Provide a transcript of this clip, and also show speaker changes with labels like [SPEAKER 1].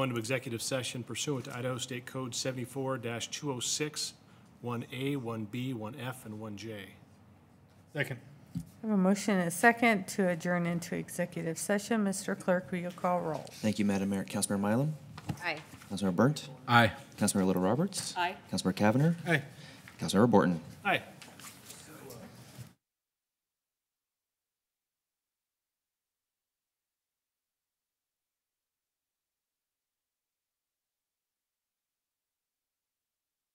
[SPEAKER 1] go into executive session pursuant to Idaho State Code 74-206, 1A, 1B, 1F, and 1J.
[SPEAKER 2] Second.
[SPEAKER 3] I have a motion and a second to adjourn into executive session. Mr. Clerk, will you call roll?
[SPEAKER 4] Thank you, Madam Mayor. Councilmember Mylum?
[SPEAKER 5] Aye.
[SPEAKER 4] Councilmember Burnt?
[SPEAKER 2] Aye.
[SPEAKER 4] Councilmember Little Roberts?
[SPEAKER 5] Aye.
[SPEAKER 4] Councilmember Cavanagh?
[SPEAKER 2] Aye.
[SPEAKER 4] Councilmember Borton?
[SPEAKER 1] Aye.